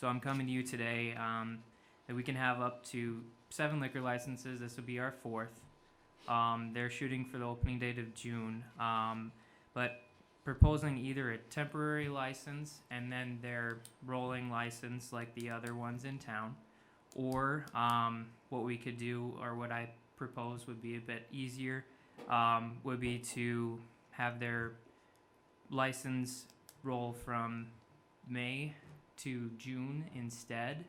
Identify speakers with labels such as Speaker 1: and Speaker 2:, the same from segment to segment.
Speaker 1: So I'm coming to you today um, that we can have up to seven liquor licenses. This will be our fourth. Um, they're shooting for the opening date of June, um, but proposing either a temporary license and then their rolling license like the other ones in town, or um, what we could do, or what I propose would be a bit easier, um, would be to have their license roll from May to June instead.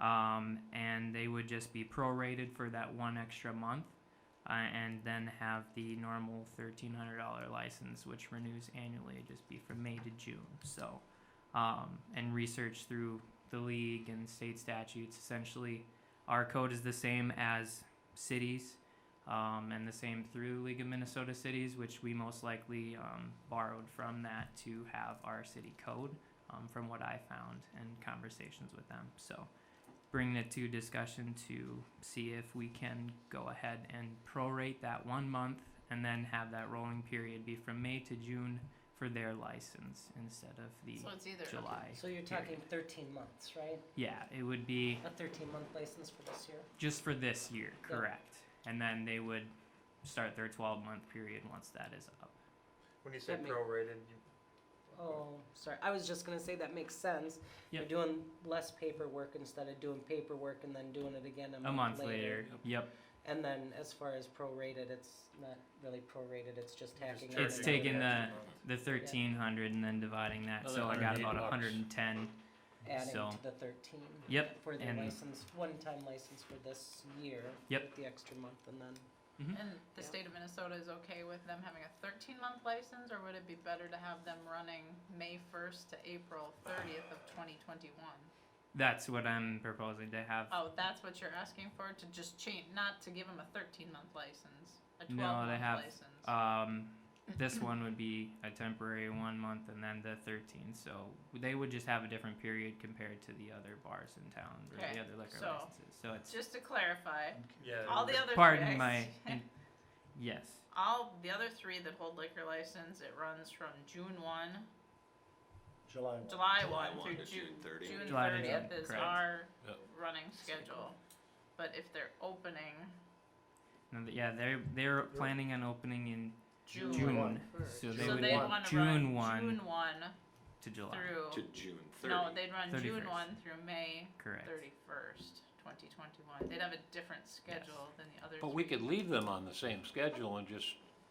Speaker 1: Um, and they would just be prorated for that one extra month, uh, and then have the normal thirteen hundred dollar license, which renews annually. It'd just be from May to June. So, um, and research through the league and state statutes. Essentially, our code is the same as cities, um, and the same through the League of Minnesota Cities, which we most likely um, borrowed from that to have our city code um, from what I found and conversations with them. So, bringing it to discussion to see if we can go ahead and prorate that one month and then have that rolling period be from May to June for their license instead of the
Speaker 2: So it's either
Speaker 1: July.
Speaker 3: So you're talking thirteen months, right?
Speaker 1: Yeah, it would be
Speaker 3: A thirteen month license for this year?
Speaker 1: just for this year,
Speaker 3: Yeah.
Speaker 1: correct? And then they would start their 12 month period once that is up.
Speaker 4: When you say
Speaker 3: That make-
Speaker 4: prorated, you,
Speaker 3: Oh, sorry, I was just gonna say that makes sense. You're
Speaker 1: Yep.
Speaker 3: doing less paperwork instead of doing paperwork and then doing it again
Speaker 1: A month later, yep,
Speaker 3: And then as far as prorated, it's not really prorated, it's just
Speaker 4: You're just
Speaker 3: tacking on.
Speaker 4: charging
Speaker 1: It's
Speaker 4: them
Speaker 3: another-
Speaker 1: taken taking the-
Speaker 4: extra month.
Speaker 1: the 1300 and then dividing that. So I got about 110.
Speaker 3: Adding
Speaker 1: so-
Speaker 3: to the thirteen.
Speaker 1: Yep,
Speaker 3: For the
Speaker 1: and-
Speaker 3: license, one-time license for this year.
Speaker 1: Yep.
Speaker 3: with The extra month and then,
Speaker 2: And the
Speaker 3: Yeah.
Speaker 2: state of Minnesota is okay with them having a thirteen month license, or would it be better to have them running May first to April thirtieth of twenty twenty one?
Speaker 1: That's what I'm proposing to have.
Speaker 2: Oh, that's what you're asking for, to just change, not to give them a thirteen month license, a
Speaker 1: No, they
Speaker 2: twelve month
Speaker 1: have,
Speaker 2: license?
Speaker 1: Um, this one would be a temporary one month and then the 13. So they would just have a different period compared to the other bars in town or
Speaker 2: Okay,
Speaker 1: the other liquor
Speaker 2: so-
Speaker 1: licenses. So it's
Speaker 2: Just to clarify,
Speaker 4: yeah.
Speaker 2: all the other.
Speaker 1: pardon
Speaker 2: three-
Speaker 1: my in- yes.
Speaker 2: All the other three that hold liquor license, it runs from June one,
Speaker 5: July one.
Speaker 2: July
Speaker 6: July
Speaker 2: one
Speaker 6: one
Speaker 2: through
Speaker 6: to June
Speaker 2: June,
Speaker 6: 30th.
Speaker 2: June
Speaker 1: July to
Speaker 2: thirtieth
Speaker 1: June,
Speaker 2: is
Speaker 1: correct.
Speaker 2: our
Speaker 6: Yep.
Speaker 2: running schedule. But if they're opening
Speaker 1: No, th- yeah, they're they're planning on opening in
Speaker 2: June.
Speaker 1: June,
Speaker 5: one.
Speaker 1: so they
Speaker 2: So
Speaker 1: would
Speaker 2: they'd
Speaker 1: want
Speaker 2: wanna
Speaker 1: June
Speaker 2: run
Speaker 1: one
Speaker 2: June one
Speaker 1: to July.
Speaker 6: To
Speaker 2: through,
Speaker 6: June 30th.
Speaker 2: no, they'd run June
Speaker 1: 31st.
Speaker 2: one through May
Speaker 1: Correct.
Speaker 2: thirty-first, twenty twenty-one. They'd have a different schedule than the others.
Speaker 7: But we could leave them on the same schedule and just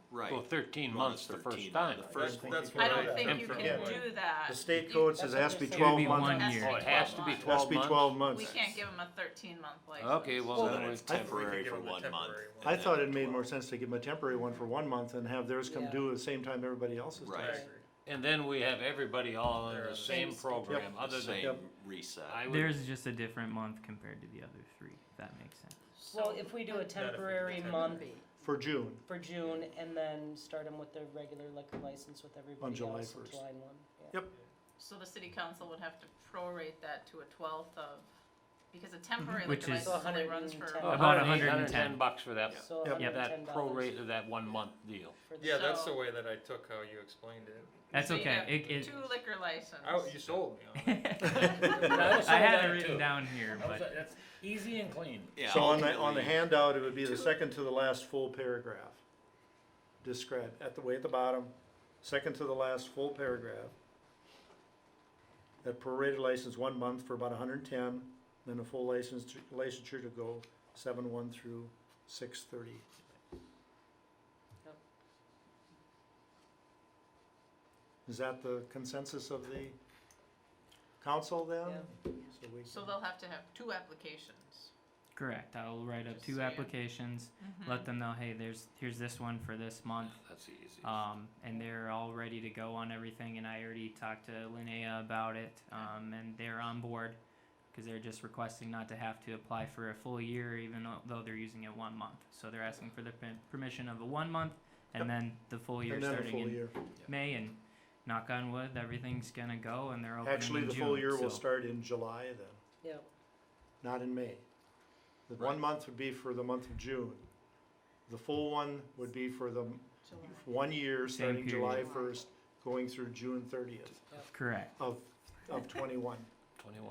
Speaker 6: Right.
Speaker 7: go thirteen
Speaker 6: Well,
Speaker 7: months the
Speaker 6: 13,
Speaker 7: first time.
Speaker 6: the
Speaker 5: I
Speaker 6: first-
Speaker 5: think
Speaker 4: that's
Speaker 5: you
Speaker 4: what
Speaker 2: I
Speaker 5: could
Speaker 2: don't
Speaker 5: do
Speaker 2: think
Speaker 5: that.
Speaker 2: you
Speaker 6: From-
Speaker 2: can
Speaker 5: Yeah.
Speaker 2: do that.
Speaker 5: The state
Speaker 2: You-
Speaker 5: code
Speaker 3: That's
Speaker 5: says
Speaker 3: what
Speaker 5: it has to be
Speaker 3: they're
Speaker 1: It'd
Speaker 5: twelve
Speaker 1: be
Speaker 2: it
Speaker 1: one
Speaker 5: months.
Speaker 2: has to
Speaker 1: year.
Speaker 2: be
Speaker 7: Oh, it has to be
Speaker 2: 12
Speaker 5: Has to be
Speaker 7: months.
Speaker 5: twelve
Speaker 2: months. We
Speaker 5: months.
Speaker 2: can't give them a thirteen-month license.
Speaker 7: Okay, well,
Speaker 6: So
Speaker 7: then
Speaker 6: then
Speaker 7: we-
Speaker 6: it's
Speaker 5: I think we
Speaker 6: temporary
Speaker 4: could
Speaker 6: for
Speaker 4: give them
Speaker 6: one
Speaker 4: the
Speaker 6: month.
Speaker 4: temporary one.
Speaker 6: and
Speaker 5: I
Speaker 6: then
Speaker 5: thought it made
Speaker 6: 12.
Speaker 5: more sense to give them a temporary one for one month and have theirs come
Speaker 3: Yeah.
Speaker 5: due at the same time everybody else's
Speaker 6: Right.
Speaker 4: I
Speaker 5: does.
Speaker 4: agree.
Speaker 7: And then we have everybody all on
Speaker 4: They're on
Speaker 7: the
Speaker 4: the
Speaker 7: same
Speaker 3: same schedule.
Speaker 7: program,
Speaker 6: The
Speaker 7: other than,
Speaker 6: same
Speaker 5: Yep.
Speaker 6: reset.
Speaker 7: I would,
Speaker 1: Theirs is just a different month compared to the other three. If that makes sense.
Speaker 3: well,
Speaker 2: So
Speaker 3: if we do a
Speaker 4: do
Speaker 3: temporary
Speaker 4: temporary.
Speaker 3: month
Speaker 5: For June,
Speaker 3: for June and then start them with their regular liquor license with everybody
Speaker 5: July
Speaker 3: else on
Speaker 5: 1st.
Speaker 3: July one. yeah.
Speaker 5: Yep.
Speaker 2: So the city council would have to prorate that to a twelfth of, because a temporary
Speaker 1: Which
Speaker 2: liquor
Speaker 1: is- Uh,
Speaker 2: license only runs for.
Speaker 3: So
Speaker 2: a
Speaker 1: About
Speaker 7: about eight hundred and
Speaker 1: 110.
Speaker 7: ten bucks for that,
Speaker 3: So
Speaker 5: Yep.
Speaker 3: hundred and ten
Speaker 7: that pro
Speaker 3: dollars
Speaker 7: rate of that one month deal.
Speaker 3: for the-
Speaker 4: Yeah, that's
Speaker 2: So-
Speaker 4: the way that I took how you explained it.
Speaker 1: That's
Speaker 2: So you'd
Speaker 1: okay.
Speaker 2: have
Speaker 1: It, it,
Speaker 2: Two liquor license.
Speaker 4: I, you sold me on that.
Speaker 1: I had it written down here, but
Speaker 7: That's easy and clean.
Speaker 6: Yeah,
Speaker 5: so on the, on the
Speaker 6: ultimately,
Speaker 5: handout, it would be the second to the last full paragraph. Describe, at the way at the bottom, second to the last full paragraph. That prorated license one month for about hundred and ten, then a full license, licensure to go seven one through six thirty.
Speaker 3: Yep.
Speaker 5: Is that the consensus of the council then?
Speaker 3: Yeah.
Speaker 5: So we
Speaker 2: So
Speaker 5: can-
Speaker 2: they'll have to have two applications.
Speaker 1: correct. I'll write up
Speaker 2: Just
Speaker 1: two
Speaker 2: saying.
Speaker 1: applications.
Speaker 2: Hmm.
Speaker 1: Let them know, hey, there's here's this one for this month.
Speaker 6: That's easy.
Speaker 1: Um, and they're all ready to go on everything. And I already talked to Linnea about it, um, and they're on board because they're just requesting not to have to apply for a full year, even tho- though they're using it one month. So they're asking for the per- permission of a one month and then the full year
Speaker 5: And then a
Speaker 1: starting
Speaker 5: full
Speaker 1: in
Speaker 5: year.
Speaker 1: May. And knock on wood, everything's gonna go, and they're opening
Speaker 5: Actually,
Speaker 1: in
Speaker 5: the full
Speaker 1: June,
Speaker 5: year will
Speaker 1: so-
Speaker 5: start in July then,
Speaker 3: Yep.
Speaker 5: not in May. The one month would be for the month of June. The full one would be for the m- one year,
Speaker 1: Same
Speaker 5: starting July
Speaker 1: period.
Speaker 5: first, going through June thirtieth
Speaker 1: Correct.
Speaker 5: of, of twenty-one.